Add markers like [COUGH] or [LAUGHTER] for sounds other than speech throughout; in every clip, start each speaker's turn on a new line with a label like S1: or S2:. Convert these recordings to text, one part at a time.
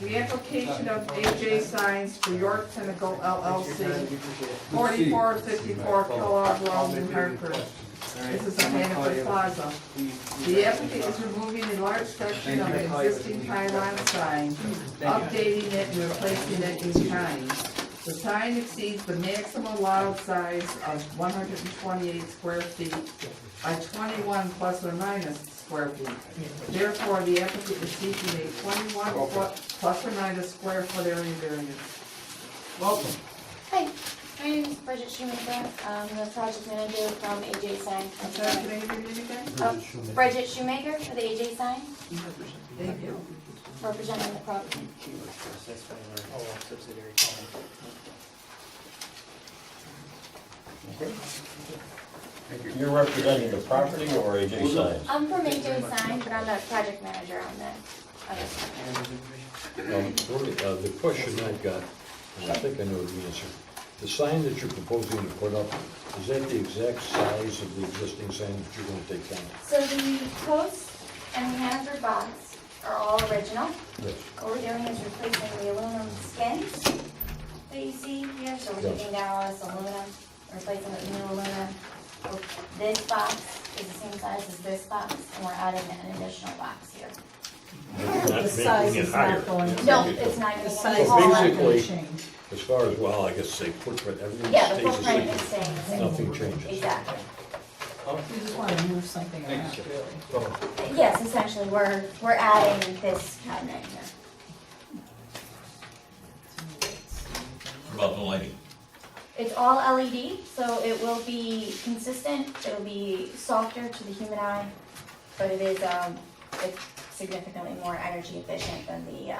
S1: The application of AJ Signs for York Pinnacle LLC,
S2: Proceed.
S1: forty-four fifty-four Kellogg Road, New Hartford. This is a Hannaford Plaza. The applicant is removing a large section of an existing pylon sign, updating it and replacing it in kind. The sign exceeds the maximum allowed size of one hundred and twenty-eight square feet by twenty-one plus or minus square feet. Therefore, the applicant is seeking a twenty-one foot plus or minus square foot area variance. Welcome.
S3: Hi, my name is Bridget Shoemaker. I'm the project manager from AJ Sign.
S1: I'm sorry, can I give you anything?
S3: Oh, Bridget Shoemaker for the AJ Sign,
S1: Thank you.
S3: representing the project.
S4: You're representing the property or AJ Science?
S3: I'm from AJ Sign, but I'm the project manager on the, on this.
S5: Um, Rory, uh, The question I've got, and I think I know the answer, the sign that you're proposing to put up, is that the exact size of the existing sign that you're going to take down?
S3: So the post and the Hannaford box are all original.
S5: Yes.
S3: What we're doing is replacing the aluminum skins that you see here, so we're taking down all this aluminum, replacing it with new aluminum. This box is the same size as this box, and we're adding an additional box here.
S6: The size is not going to.
S3: No, it's not
S6: The
S3: even
S6: size is
S3: a hall.
S6: not going
S5: Basically-
S6: to change.
S5: As far as, well, I guess say footprint, everything
S3: Yeah, the
S5: stays the
S3: footprint is
S5: same.
S3: staying the same.
S5: Nothing changes.
S3: Exactly.
S6: You just want to move something around, really.
S3: Yes, essentially, we're, we're adding this cabinet here.
S4: About the lighting.
S3: It's all LED, so it will be consistent, it'll be softer to the human eye, but it is, um, it's significantly more energy efficient than the, uh,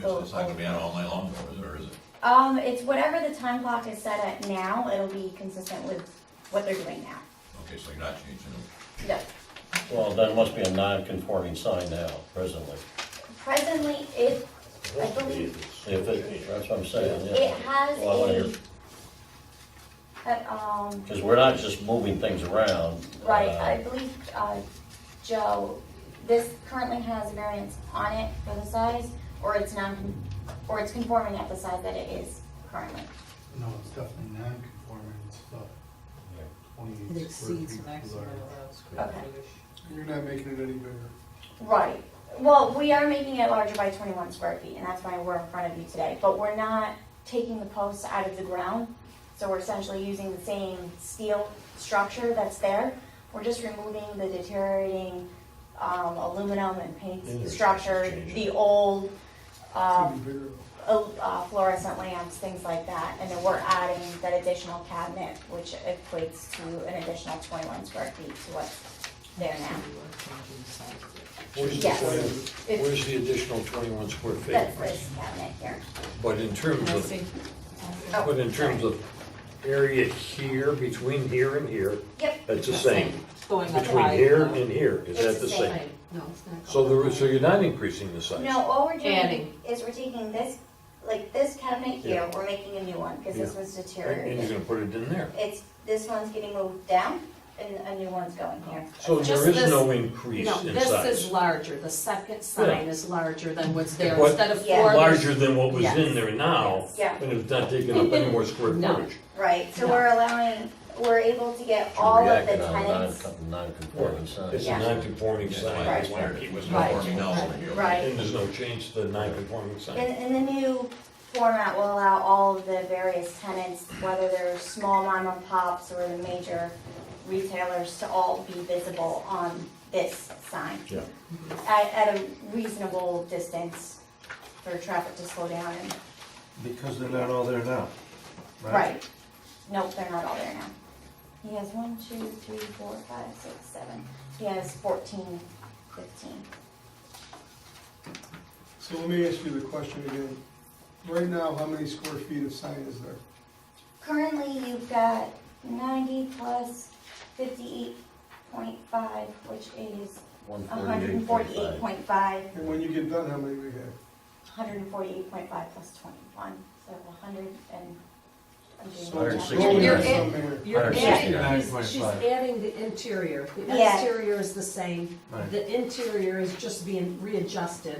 S4: So It's not gonna be on all night long, or is it?
S3: um, it's whatever the time clock is set at now, it'll be consistent with what they're doing now.
S4: Okay, so you're not changing it.
S3: No,
S4: Well, that must be a non-conforming sign now, presently.
S3: presently, it, I believe,
S4: If it, that's what I'm saying,
S3: it has
S4: Well, I wanna
S3: a,
S4: hear-
S3: uh, um,
S4: Because we're not just moving things around.
S3: Right, I believe, uh, Joe, this currently has a variance on it for the size, or it's non, or it's conforming at the size that it is currently.
S7: No, it's definitely non-conforming, it's about
S6: It
S7: twenty-eight square feet.
S6: exceeds the maximum
S7: below.
S6: allowed square
S3: Okay.
S6: footage.
S7: You're not making it any bigger.
S3: Right, well, we are making it larger by twenty-one square feet, and that's why we're in front of you today, but we're not taking the posts out of the ground, so we're essentially using the same steel structure that's there, we're just removing the deteriorating, um, aluminum and paint
S5: Interesting
S3: structure,
S5: change.
S3: the old, um,
S7: It's even bigger.
S3: uh, fluorescent lamps, things like that, and then we're adding that additional cabinet, which equates to an additional twenty-one square feet to what's there now.
S6: You are changing the size of it.
S5: Where's the
S3: Yes.
S5: 21
S3: It's-
S5: Where's the additional twenty-one square
S3: That's
S5: feet?
S3: this cabinet here.
S5: But in terms
S6: I
S5: of,
S6: think-
S3: Oh,
S5: but in terms
S3: sorry.
S5: of area here, between here and here,
S3: Yep,
S5: that's the same.
S6: Going up
S5: Between
S6: high,
S5: here
S6: no.
S5: and here, is
S3: It's
S5: that
S3: the
S5: the
S3: same.
S5: same?
S6: No, it's not.
S5: So
S6: going
S5: there,
S6: up
S5: so
S6: high.
S5: you're not increasing the size?
S3: no, all we're doing
S6: Adding.
S3: is we're taking this, like this cabinet here,
S5: Yeah.
S3: we're making a new one, because this
S5: Yeah.
S3: was
S5: And and you're
S3: deteriorating.
S5: gonna put it in there?
S3: It's, this one's getting moved down, and a new one's going here.
S5: So
S6: Just
S5: there is
S6: this-
S5: no increase
S6: No,
S5: in
S6: this is
S5: size?
S6: larger, the second sign
S5: Yeah.
S6: is larger than what's there,
S5: What-
S6: instead of
S3: Yeah.
S6: four. there's-
S5: Larger than what was in
S6: Yes.
S5: there now,
S3: Yeah.
S5: and it's not taking up any more square
S6: [LAUGHS] No.
S5: footage?
S3: Right, so
S6: No.
S3: we're allowing, we're able to get all of the tenants.
S4: Non-conforming
S5: It's a
S3: Uh, Yeah.
S5: non-conforming sign,
S3: Right.
S4: It was
S6: Right.
S4: conforming now over here.
S3: Right.
S5: and there's no change to the non-conforming sign?
S3: And, and the new format will allow all of the various tenants, whether they're small mom and pops or the major retailers, to all be visible on this sign.
S5: Yeah.
S3: At, at a reasonable distance for traffic to slow down and,
S8: Because they're not all there now.
S3: right. Nope, they're not all there now. He has one, two, three, four, five, six, seven. He has fourteen, fifteen.
S7: So let me ask you the question again. Right now, how many square feet of sign is there?
S3: Currently, you've got ninety plus fifty-eight point five, which is hundred and forty-eight point five,
S7: And when you get done, how many we have?
S3: hundred and forty-eight point five plus twenty-one, so hundred and. I'm doing
S7: So
S3: the
S7: it's
S3: math.
S4: Hundred and
S7: going
S4: sixty.
S7: up somewhere.
S6: You're
S8: Hundred
S6: adding,
S8: sixty-nine
S6: she's- she's
S8: point five.
S6: adding the interior, the
S3: Yeah.
S6: exterior is the same,
S8: Right.
S6: the interior is just being readjusted